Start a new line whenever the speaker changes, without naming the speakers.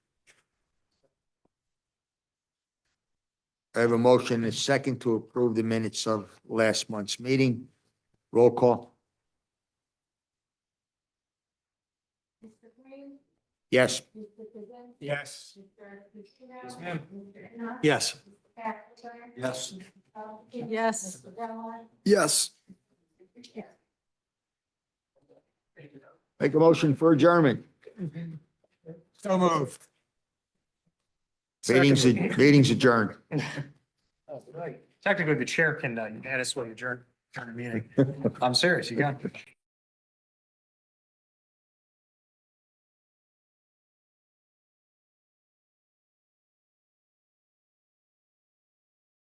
I have a motion and a second to approve the minutes of last month's meeting. Roll call.
Mr. Green,
Yes,
Mr. Kaczynski,
Yes.
Mr. Pacino.
Yes, ma'am.
Mr. Knopf.
Yes.
Mr. Bachelor.
Yes.
Mr. Felton,
Yes.
Mr. Dellon.
Yes.
make a motion for adjournment.
So moved.
Meetings, meetings adjourned.
Oh, Technically, the chair can, uh, add us while you adjourn, adjourn the meeting. I'm serious, you got.